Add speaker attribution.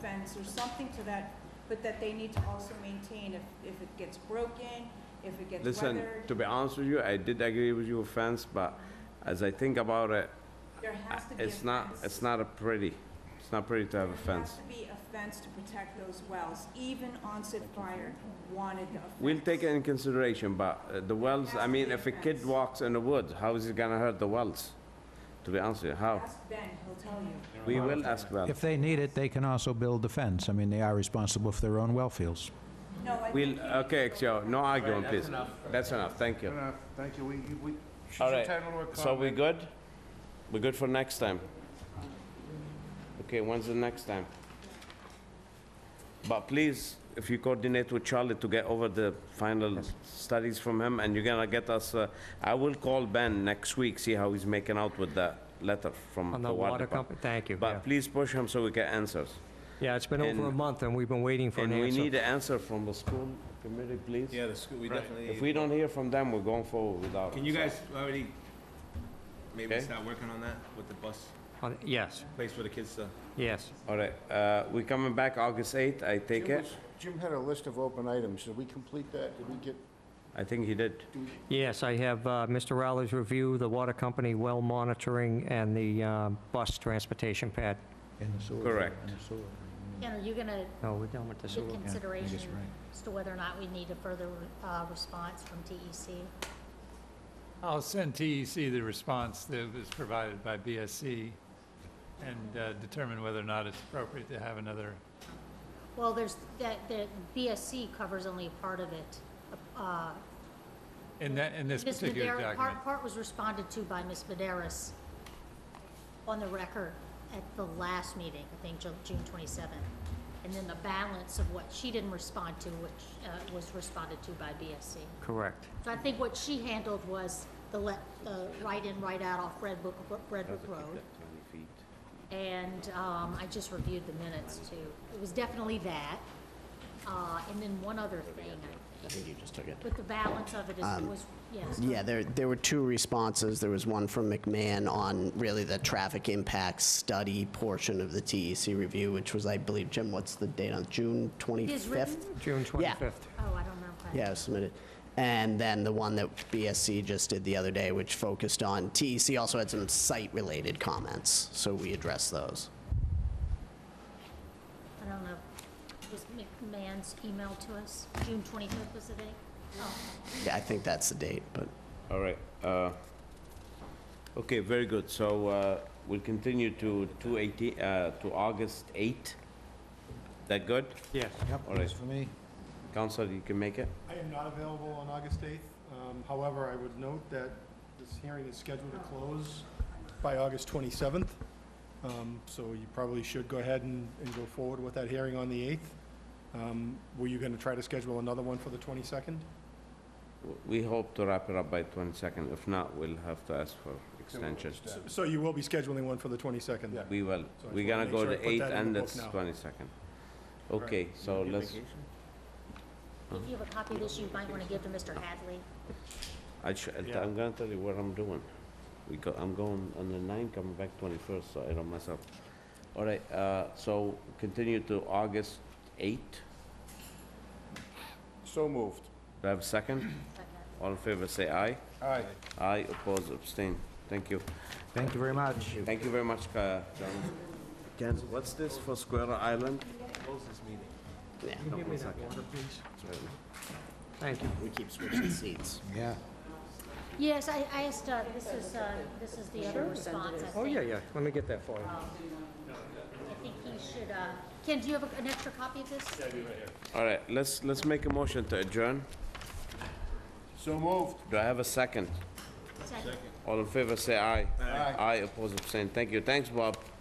Speaker 1: fence or something to that, but that they need to also maintain if, if it gets broken, if it gets
Speaker 2: Listen,
Speaker 1: weathered.
Speaker 2: to be honest with you, I did agree with your fence, but as I think about it,
Speaker 1: There has to be a fence.
Speaker 2: it's not, it's not a pretty, it's not pretty to have a
Speaker 1: There has
Speaker 2: fence.
Speaker 1: to be a fence to protect those wells. Even Onset Fire wanted a fence.
Speaker 2: We'll take it in consideration, but uh, the wells, I mean, if a kid walks in the woods, how is it gonna hurt the wells? To be honest with you, how?
Speaker 1: Ask Ben, he'll tell you.
Speaker 2: We will ask them.
Speaker 3: If they need it, they can also build the fence. I mean, they are responsible for their own well fields.
Speaker 1: No, I
Speaker 2: We'll,
Speaker 1: think.
Speaker 2: okay, Joe, no argument, please. That's enough, thank you.
Speaker 4: Enough, thank you, we, we, she's
Speaker 2: All right,
Speaker 4: entitled to a comment.
Speaker 2: so we good? We good for next time? Okay, when's the next time? But please, if you coordinate with Charlie to get over the final studies from him, and you're gonna get us, uh, I will call Ben next week, see how he's making out with that letter from
Speaker 5: On
Speaker 2: the water company.
Speaker 5: company, thank you, yeah.
Speaker 2: But please push him so we get answers.
Speaker 5: Yeah, it's been over a
Speaker 2: and-
Speaker 5: month, and we've been waiting for an
Speaker 2: And we need
Speaker 5: answer.
Speaker 2: an answer from the school committee, please.
Speaker 6: Yeah, the school, we definitely.
Speaker 2: If we don't hear from them, we're going forward without.
Speaker 6: Can you
Speaker 2: it, so.
Speaker 6: guys already maybe
Speaker 2: Okay.
Speaker 6: start working on that with the bus,
Speaker 5: On- Yes,
Speaker 6: place for the kids to?
Speaker 5: yes.
Speaker 2: All right, uh, we coming back August 8th, I take
Speaker 7: Jim
Speaker 2: it?
Speaker 7: was- Jim had a list of open items. Did we complete that? Did we get,
Speaker 2: I think he did.
Speaker 5: Yes, I have uh, Mr. Rowley's review, the water company well monitoring, and the uh, bus transportation pad.
Speaker 2: Correct.
Speaker 8: Ken, are you going to
Speaker 5: No, we're done with the
Speaker 8: give
Speaker 5: sewer.
Speaker 8: consideration
Speaker 3: right.
Speaker 8: as to whether or not we need a further uh, response from TEC?
Speaker 9: I'll send TEC the response that was provided by BSC and uh, determine whether or not it's appropriate to have another.
Speaker 8: Well, there's, that, that BSC covers only a part of it. Uh,
Speaker 9: In that, in this
Speaker 8: Ms.
Speaker 9: particular
Speaker 8: Madera-
Speaker 9: document,
Speaker 8: Part, part was responded to by Ms. Maderas on the record at the last meeting, I think Ju- June 27th. And then the balance of what she didn't respond to, which uh, was responded to by BSC.
Speaker 5: Correct.
Speaker 8: So I think what she handled was the let, the write-in, write-out off Red Book, Red Book Road. And, um, I just reviewed the minutes too. It was definitely that. Uh, and then one other thing, I think.
Speaker 10: You just took it. Um,
Speaker 8: But the balance of it is, was, yes.
Speaker 10: Yeah, there, there were two responses. There was one from McMahon on really the traffic impact study portion of the TEC review, which was, I believe, Jim, what's the date on, June 25th?
Speaker 8: Is written?
Speaker 5: June 25th.
Speaker 8: Oh, I don't remember.
Speaker 10: Yeah, it was submitted. And then the one that BSC just did the other day, which focused on, TEC also had some site-related comments, so we addressed those.
Speaker 8: I don't know. Was McMahon's email to us, June twenty-fifth was the date? Oh,
Speaker 10: Yeah, I think that's the date, but.
Speaker 2: All right, uh, okay, very good, so, uh, we'll continue to two eighteen, uh, to August 8th. That good?
Speaker 5: Yes.
Speaker 3: Yep,
Speaker 2: All right.
Speaker 3: that's for me.
Speaker 2: Counselor, you can make it?
Speaker 11: I am not available on August 8th. Um, However, I would note that this hearing is scheduled to close by August 27th. Um, So you probably should go ahead and, and go forward with that hearing on the 8th. Um, Were you going to try to schedule another one for the 22nd?
Speaker 2: W- We hope to wrap it up by 22nd, if not, we'll have to ask for extension.
Speaker 11: So- So you will be scheduling one for the 22nd? then?
Speaker 2: We will,
Speaker 11: uh, So I
Speaker 2: we're
Speaker 11: just
Speaker 2: gonna
Speaker 11: wanna
Speaker 2: go
Speaker 11: make sure I
Speaker 2: the
Speaker 11: put
Speaker 2: 8th
Speaker 11: that in
Speaker 2: and
Speaker 11: the
Speaker 2: the
Speaker 11: book now.
Speaker 2: 22nd. Okay, so let's,
Speaker 8: Oh, if you have a copy of this, you might want to give to Mr. Hadley.
Speaker 2: I sh- I'll t- I'm gonna tell you what I'm doing. We go, I'm going on the 9th, coming back 21st, so I don't mess up. All right, uh, so continue to August 8th.
Speaker 4: So moved.
Speaker 2: Do I have a second? All in favor, say aye.
Speaker 4: Aye.
Speaker 2: Aye, oppose, abstain. Thank you.
Speaker 3: Thank you very much.
Speaker 2: Thank you very much, Ka- John. What's this for Square Island?
Speaker 5: Give me that water, please. Thank you.
Speaker 10: We keep switching seats.
Speaker 3: Yeah.
Speaker 8: Yes, I, I asked, uh, this is, uh, this is the other response, I think.
Speaker 5: Oh, yeah, yeah, let me get that for you.
Speaker 8: I think he should, uh, Ken, do you have a- an extra copy of this?
Speaker 2: All right, let's, let's make a motion to adjourn.
Speaker 4: So moved.
Speaker 2: Do I have a second?
Speaker 8: Second.
Speaker 2: All in favor, say aye. Aye. Aye, oppose, abstain. Thank you. Thanks, Bob.